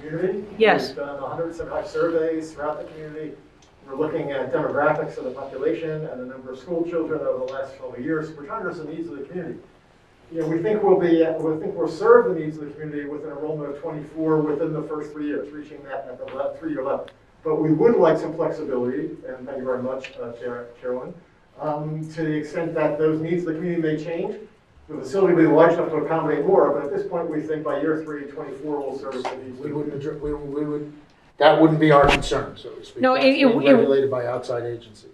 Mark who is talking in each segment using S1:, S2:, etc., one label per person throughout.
S1: community.
S2: Yes.
S1: We've done 175 surveys throughout the community. We're looking at demographics of the population and the number of school children over the last 12 years. We're trying to address the needs of the community. You know, we think we'll be, we think we'll serve the needs of the community with an enrollment of 24 within the first three years, reaching that at the le- three-year level. But we would like some flexibility, and thank you very much, uh, Chair- Chairwoman, um, to the extent that those needs of the community may change. The facility will be large enough to accommodate more, but at this point, we think by year three, 24 will service the needs.
S3: We wouldn't, addre- we we would, that wouldn't be our concern, so to speak.
S2: No,
S3: That's
S2: it- it-
S3: being
S2: it-
S3: Regulated by outside agency.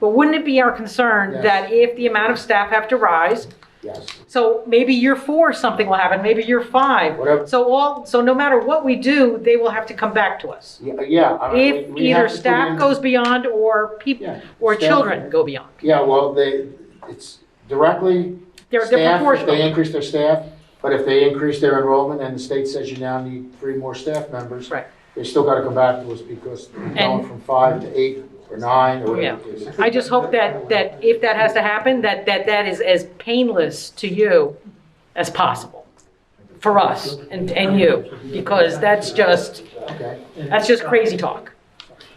S2: But wouldn't it be our concern
S3: Yes.
S2: that if the amount of staff have to rise,
S3: Yes.
S2: so maybe year four, something will happen, maybe year five.
S3: Whatever.
S2: So all, so no matter what we do, they will have to come back to us.
S3: Yeah, Yeah. I mean,
S2: If
S3: we- we have
S2: either
S3: to put in-
S2: staff goes beyond or people,
S3: Yeah,
S2: or
S3: staff-
S2: children go beyond.
S3: Yeah, well, they, it's directly
S2: They're, they're
S3: staff, if they
S2: proportional.
S3: increase their staff, but if they increase their enrollment and the state says you now need three more staff members.
S2: Right.
S3: They still gotta come back to us because we're going from five to eight or nine or whatever. it is.
S2: I just hope that, that if that has to happen, that, that that is as painless to you as possible. For us and, and you, because that's just,
S3: Okay,
S2: That's just crazy talk.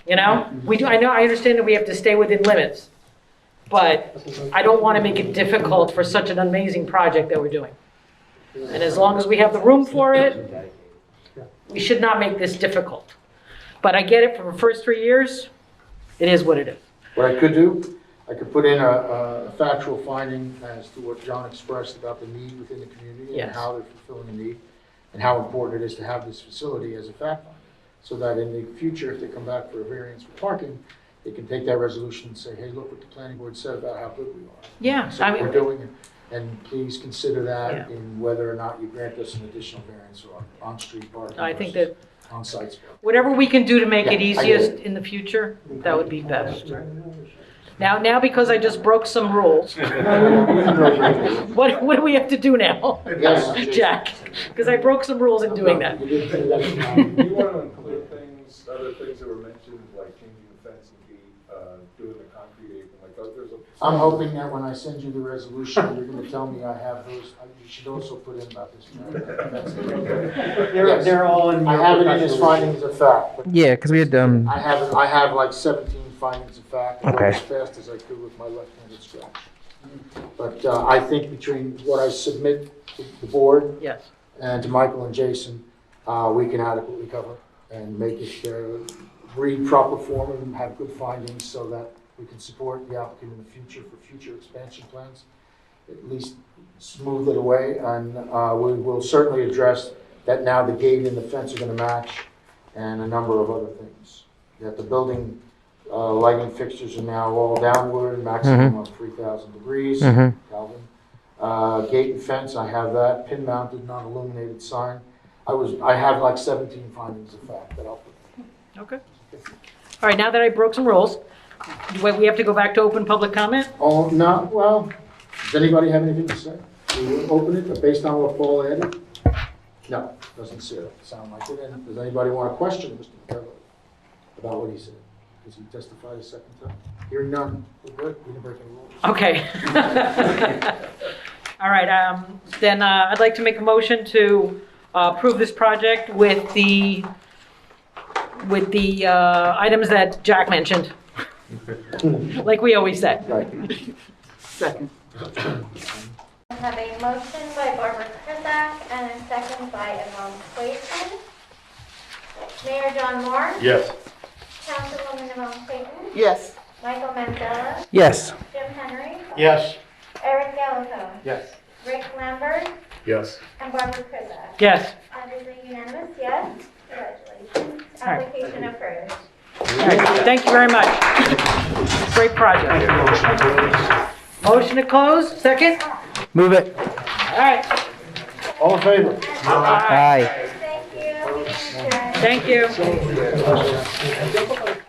S2: You know, we do, I know, I understand that we have to stay within limits, but I don't want to make it difficult for such an amazing project that we're doing. And as long as we have the room for it, we should not make this difficult. But I get it from the first three years, it is what it is.
S3: what I could do, I could put in a, a factual finding as to what John expressed about the need within the community and
S2: Yes.
S3: how they're fulfilling the need and how important it is to have this facility as a fact finder. So that in the future, if they come back for a variance for parking, they can take that resolution and say, hey, look what the planning board said about how good we are.
S2: Yeah,
S3: So
S2: I
S3: we're
S2: mean,
S3: doing, it, and please consider that
S2: Yeah.
S3: in whether or not you grant us an additional variance or on-street parking.
S2: I think
S3: versus
S2: that
S3: On-site parking.
S2: whatever we can do to make
S3: Yeah, I
S2: it
S3: get
S2: easiest
S3: it.
S2: in the future, that would be best. Now, now because I just broke some rules, what, what do we have to do now?
S3: Yes.
S2: Jack, because I broke some rules in doing that.
S3: You did say that.
S4: Do you want to include things, other things that were mentioned, like changing the fence and gate, uh, doing the concrete apron, like, oh, there's a.
S3: I'm hoping that when I send you the resolution, you're gonna tell me I have those, I- you should also put in about this. That's it.
S5: They're, they're all in.
S3: I have it in as findings of fact, but
S6: Yeah, because we had, um,
S3: I have, I have like seventeen findings of fact, I went
S6: Okay.
S3: as fast as I could with my left-handed scratch. But uh, I think between what I submit to the board
S2: Yes.
S3: and to Michael and Jason, uh, we can adequately cover and make it uh, read proper form and have good findings so that we can support the applicant in the future for future expansion plans. At least smooth it away, and uh, we will certainly address that now the gate and the fence are going to match and a number of other things. That the building uh, lighting fixtures are now all downward, maximum of 3,000 degrees.
S6: mhm.
S3: Calvin. Uh, Gate and fence, I have that, pin mounted, non-illuminated sign. I was, I have like 17 findings of fact that I'll put.
S2: Okay. All right, now that I broke some rules, wait, we have to go back to open public comment?
S3: Oh, no, well, does anybody have anything to say? We will open it, but based on what Paul added? No, doesn't say it, sound like it. And does anybody want to question Mr. McCullough about what he said? Because he testified a second time. Hearing none, we're good, we didn't break any rules.
S2: Okay. All right, um, then uh, I'd like to make a motion to uh, approve this project with the, with the uh, items that Jack mentioned. Like we always said.
S3: Right.
S2: Second.
S7: I have a motion by Barbara Krizak and a second by Yvonne Clayton. Mayor John Moore.
S4: Yes.
S7: Councilwoman Yvonne Clayton.
S5: Yes.
S7: Michael Manzella.
S6: Yes.
S7: Jim Henry.
S3: Yes.
S7: Eric Gallo.
S3: Yes.
S7: Rick Lambert.
S4: Yes.
S7: And Barbara Krizak.
S2: Yes.
S7: That is a unanimous yes. Congratulations. Application approved.
S2: All right, Thank you very much. Great project. Motion to close, second?
S6: Move it.
S2: All right.
S3: All in favor?
S2: All right.
S6: Aye.
S7: Thank you. Meeting adjourned.
S2: Thank you.